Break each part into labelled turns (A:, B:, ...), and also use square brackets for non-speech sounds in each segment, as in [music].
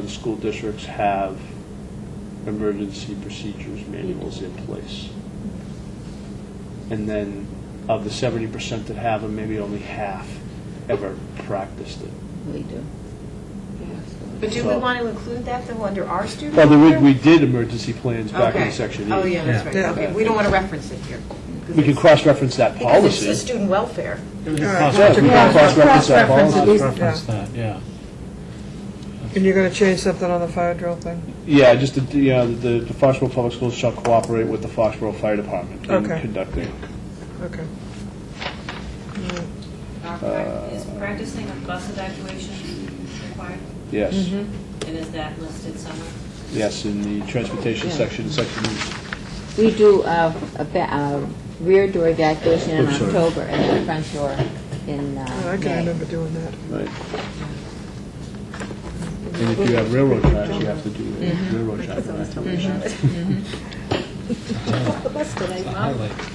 A: the school districts have emergency procedures manuals in place. And then of the seventy percent that have them, maybe only half ever practiced it.
B: We do.
C: But do we want to include that, though, under our student?
A: Well, there
C: care?
A: we, we did emergency plans back in
C: Okay.
A: section E.
C: Oh, yeah, that's
D: Yeah.
C: right. Okay, we don't want to reference it here. 'cause
A: We can
C: it's-
A: cross-reference that
C: Because it's
A: policy.
C: the student welfare.
A: Yeah, we can cross-reference that policy.
E: Reference that, yeah.
D: And you're going to change something on the fire drill thing?
A: Yeah, just, the- the, uh, the the Foxborough Public Schools shall cooperate with the Foxborough Fire Department in
D: Okay.
A: conducting.
D: Okay.
F: Are prac- Is practicing a bus evacuation required,
A: Yes,
C: Mm-hmm.
F: and is that listed somewhere?
A: yes, in the transportation
B: Yeah.
A: section, section E.
B: We do uh, a ba- uh, rear door evacuation in
A: I'm sorry.
B: October and then front door in
G: Oh,
D: Yeah,
B: uh,
D: I can
B: May.
D: remember doing that.
A: Right. And if you have railroad tracks, you have to do a railroad track evacuation.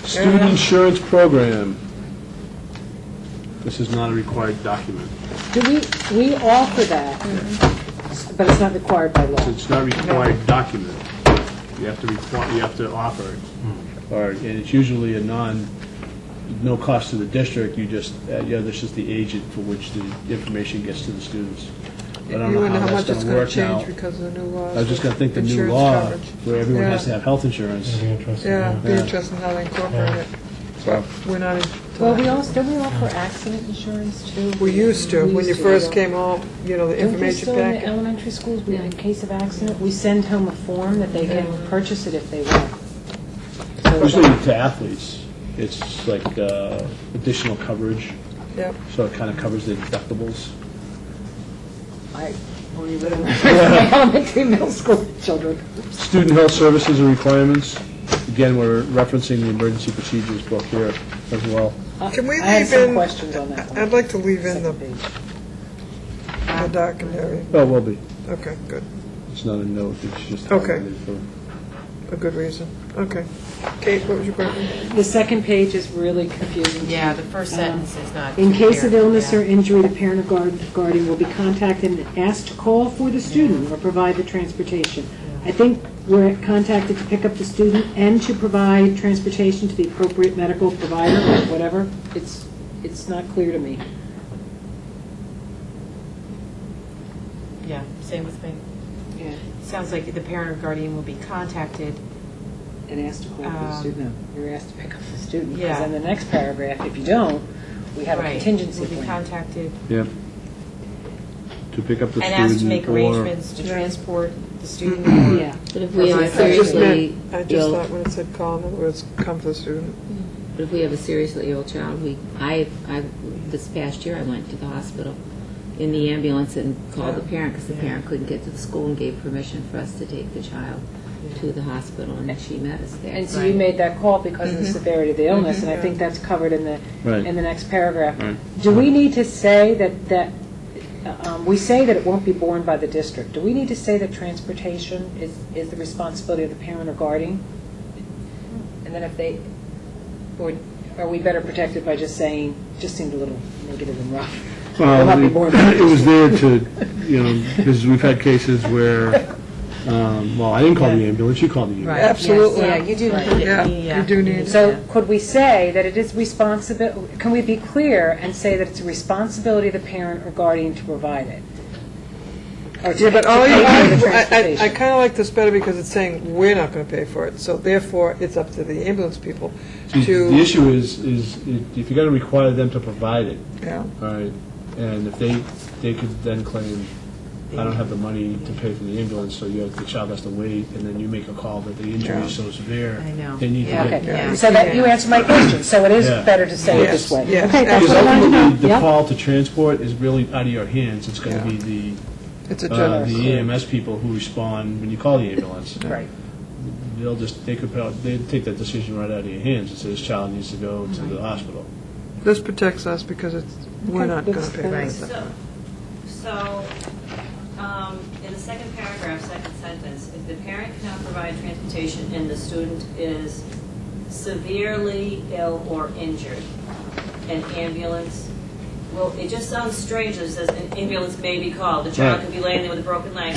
A: Student insurance program. This is not a required document.
G: Do we, we offer that, but it's not required by law.
A: It's not a required document. You have to require, you have to offer it. Or, and it's usually a non, no cost to the district, you just, uh, yeah, this is the agent for which the information gets to the students. I
D: You
A: don't know
D: wonder
A: how
D: how
A: that's
D: much it's
A: gonna
D: going
A: work
D: to
A: now.
D: change because of the new laws.
A: I was just gonna think the new
D: insurance
A: law,
D: coverage.
A: where everyone has
D: Yeah.
A: to have health insurance.
D: Yeah, be
A: Yeah.
D: interesting how they incorporate it.
A: So-
D: We're not, in-
G: Well, we also, don't we offer accident insurance too?
D: we used to, when you
G: used
D: first
G: yeah.
D: came home, you know, the
G: Don't we
D: information
G: still in the
D: packet.
G: elementary schools, we, in case of accident, we send home a form that they can purchase it if they want. So
A: Especially
G: that-
A: to athletes, it's like uh, additional coverage,
D: Yep.
A: so it kind of covers the deductibles.
G: I only [laughs] live in my elementary, middle school children.
A: Student health services and requirements, again, we're referencing the emergency procedures book here as well.
D: Can we
G: Uh, I had
D: leave
G: some
D: in-
G: questions on that one.
D: I'd like to leave in the,
G: Second page.
D: the documentary.
A: Oh, will be,
D: Okay, good.
A: it's not a note, it's just.
D: Okay. A good reason. Okay. Kate, what was your question?
G: The second page is really confusing.
C: Yeah, the first sentence is not.
G: In case of
C: clear.
G: illness
C: Yeah.
G: or injury, the parent or guard- guardian will be contacted and asked to call for the student or provide the transportation. I think we're contacted to pick up the student and to provide transportation to the appropriate medical provider or whatever. It's, it's not clear to me.
C: Yeah, same with me. Sounds like the parent or guardian will be contacted.
G: And asked to call for the
C: Um,
G: student. You're asked to pick up the student.
C: Yeah.
G: Because in the next paragraph, if you don't, we have a
C: Right,
G: contingency
C: Will be
G: plan.
C: contacted
A: Yeah. To pick up the
C: and
A: student.
C: asked to make
A: or-
C: arrangements to transport the student.
G: Yeah.
B: But if we have
C: Right.
B: a
C: I
D: I just
B: seriously
D: meant, I just
B: ill,
D: thought when it said call, in other words, come for the student.
B: but if we have a seriously ill child, we, I, I, this past year, I went to the hospital in the ambulance and called the parent because the parent couldn't get to the school and gave permission for us to take the child to the hospital and she met us there.
G: And so you made that call because of the severity of the illness, and I think that's covered in the,
A: Right.
G: in the next paragraph. Do we need to say that, that, uh, um, we say that it won't be borne by the district. Do we need to say that transportation is, is the responsibility of the parent or guardian? And then if they, or are we better protected by just saying, just seemed a little negative and rough? Will not
A: [clears throat]
G: be borne by
A: [laughs]
G: the
A: Well, it- it was
G: district.
A: there to, you know, because we've had cases where, um, well, I didn't call the ambulance, you called the ambulance.
D: Absolutely.
C: Yeah, you do include it
D: Yeah,
C: in the,
D: you
C: yeah.
D: do need,
G: So could we say that it is responsible, can we be clear and say that it's a responsibility of the parent or guardian to provide it? Or to
D: Oh, yeah, but all
G: to
D: you,
G: pay for the
D: I- I, I
G: transportation?
D: kind of like this better because it's saying we're not going to pay for it, so therefore it's up to the ambulance people
A: See, The
D: to,
A: issue is, is if you're going to require them to provide it,
D: yeah,
A: All right, and if they, they could then claim, I don't have the money to pay for the ambulance, so you have, the child has to wait, and then you make a call that the injury is so severe.
C: I know.
A: They need to
C: Yeah.
A: get.
D: Yeah.
G: Okay, so that, you answered my question, so it is
A: Yeah.
G: better to say it
D: Yes,
G: this way.
D: yes,
G: Okay, that's
A: Because
G: what I wanted to know.
A: ultimately, the
G: Yep.
A: call to transport is really out of your hands, it's gonna
D: Yeah.
A: be
D: it's a
A: the, uh,
D: generous.
A: the EMS people who respond when you call the ambulance.
G: Right.
A: They'll just, they could, prob- they'd take that decision right out of your hands, and say, this child needs to go to the hospital.
D: This protects us because it's, we're
G: Okay,
D: not going
G: that's-
D: to pay for
G: that's-
D: it.
F: So, so, um, in the second paragraph, second sentence, if the parent cannot provide transportation and the student is severely ill or injured, an ambulance, well, it just sounds strange, it says an ambulance may be called, the child
A: Right.
F: could be laying there with a broken leg,